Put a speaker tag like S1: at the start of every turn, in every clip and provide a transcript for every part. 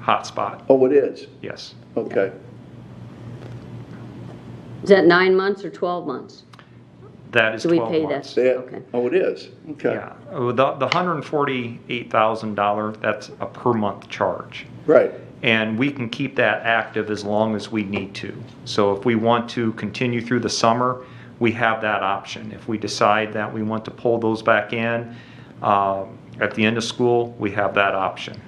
S1: hotspot,
S2: Oh, it is?
S1: yes.
S2: Okay.
S3: Is that nine months or 12 months?
S1: That is
S3: Do we
S1: 12
S3: pay
S1: months.
S3: that?
S2: That,
S3: Okay.
S2: oh, it is? Okay.
S1: Yeah, Oh, the, the $148,000, that's a per month charge.
S2: Right.
S1: And we can keep that active as long as we need to. So if we want to continue through the summer, we have that option. If we decide that we want to pull those back in um, at the end of school, we have that option.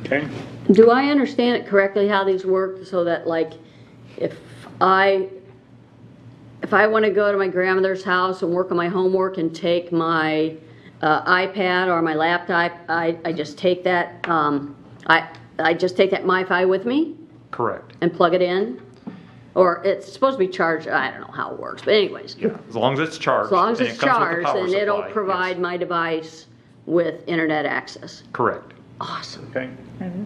S4: Okay.
S3: Do I understand it correctly how these work so that like if I if I want to go to my grandmother's house and work on my homework and take my uh, iPad or my laptop, I, I just take that um, I I just take that MiFi with me
S1: Correct.
S3: and plug it in, or it's supposed to be charged. I don't know how it works, but anyways,
S1: Yeah, as long as it's charged.
S3: as long as
S1: and
S3: it's
S1: it comes with the
S3: charged,
S1: power
S3: then it'll
S1: supply, yes.
S3: provide my device with internet access.
S1: Correct.
S3: Awesome,
S4: Okay.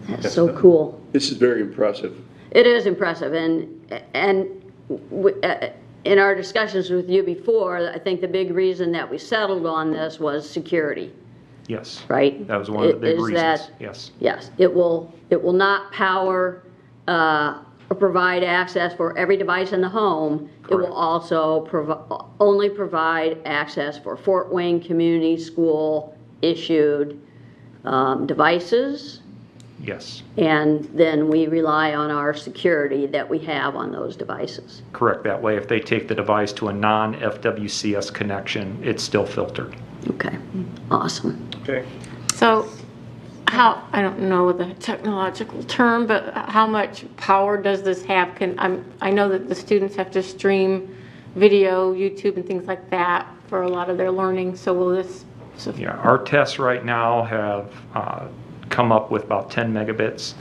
S3: that's so cool.
S2: This is very impressive.
S3: It is impressive, and, and w- uh, in our discussions with you before, I think the big reason that we settled on this was security,
S1: Yes.
S3: right?
S1: That was one of the big
S3: Is
S1: reasons.
S3: that-
S1: Yes.
S3: Yes, it will, it will not power uh, or provide access for every device in the home. It
S1: Correct.
S3: will also provi- only provide access for Fort Wayne Community School-issued um, devices.
S1: Yes.
S3: And then we rely on our security that we have on those devices.
S1: Correct. That way, if they take the device to a non-FWCS connection, it's still filtered.
S3: Okay, awesome.
S4: Okay.
S5: So how, I don't know what the technological term, but how much power does this have? Can, I'm, I know that the students have to stream video, YouTube and things like that for a lot of their learning, so will this, so-
S1: Yeah, our tests right now have uh, come up with about 10 megabits,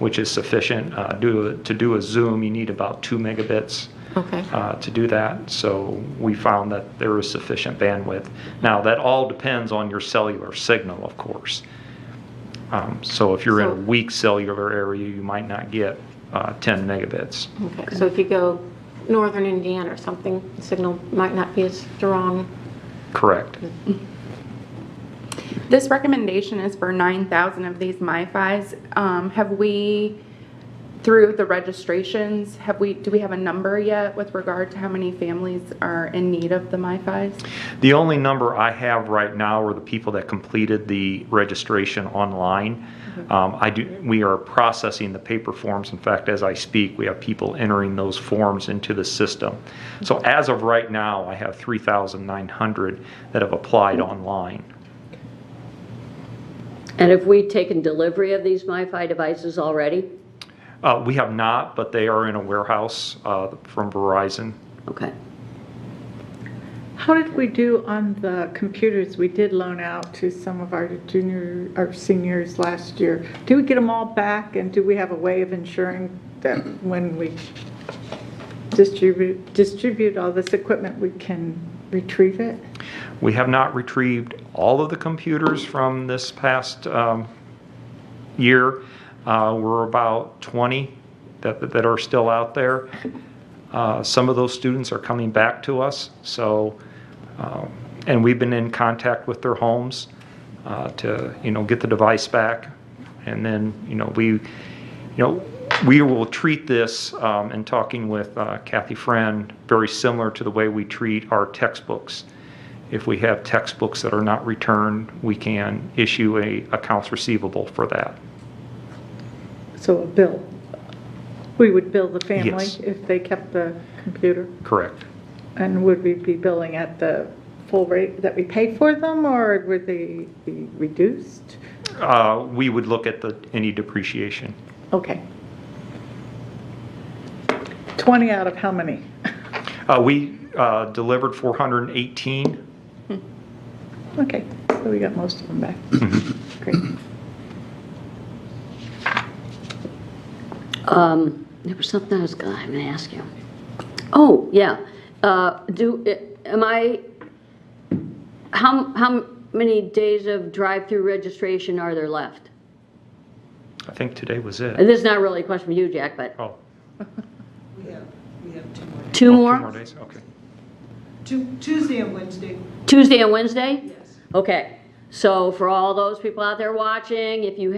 S1: which is sufficient. Uh, do- To do a Zoom, you need about 2 megabits
S5: okay.
S1: uh, to do that, so we found that there is sufficient bandwidth. Now, that all depends on your cellular signal, of course. Um, So if you're in a
S5: So-
S1: weak cellular area, you might not get uh, 10 megabits.
S5: Okay, so if you go northern Indiana or something, the signal might not be as strong.
S1: Correct.
S6: This recommendation is for 9,000 of these MiFis. Um, Have we, through the registrations, have we, do we have a number yet with regard to how many families are in need of the MiFis?
S1: The only number I have right now are the people that completed the registration online. Um, I do, we are processing the paper forms. In fact, as I speak, we have people entering those forms into the system. So as of right now, I have 3,900 that have applied online.
S3: And have we taken delivery of these MiFi devices already?
S1: Uh, We have not, but they are in a warehouse uh, from Verizon.
S3: Okay.
S7: How did we do on the computers we did loan out to some of our junior, our seniors last year? Do we get them all back, and do we have a way of ensuring that when we distribute, distribute all this equipment, we can retrieve it?
S1: We have not retrieved all of the computers from this past um, year. Uh, We're about 20 that that are still out there. Uh, Some of those students are coming back to us, so, um, and we've been in contact with their homes uh, to, you know, get the device back. And then, you know, we, you know, we will treat this, um, in talking with uh, Kathy Friend, very similar to the way we treat our textbooks. If we have textbooks that are not returned, we can issue a accounts receivable for that.
S7: So a bill? We would bill the family
S1: Yes.
S7: if they kept the computer?
S1: Correct.
S7: And would we be billing at the full rate that we paid for them, or would they be reduced?
S1: Uh, We would look at the, any depreciation.
S7: Okay. 20 out of how many?
S1: Uh, We uh, delivered 418.
S7: Okay, so we got most of them back. Great.
S3: Um, There was something I was gonna, I'm gonna ask you. Oh, yeah. Uh, Do, am I, how, how many days of drive-through registration are there left?
S1: I think today was it.
S3: And this is not really a question for you, Jack, but
S1: Oh,
S8: We have, we have two more.
S3: two
S1: two more
S3: more?
S1: days, okay.
S8: Tu- Tuesday and Wednesday,
S3: Tuesday and Wednesday?
S8: yes.
S3: Okay. So for all those people out there watching, if you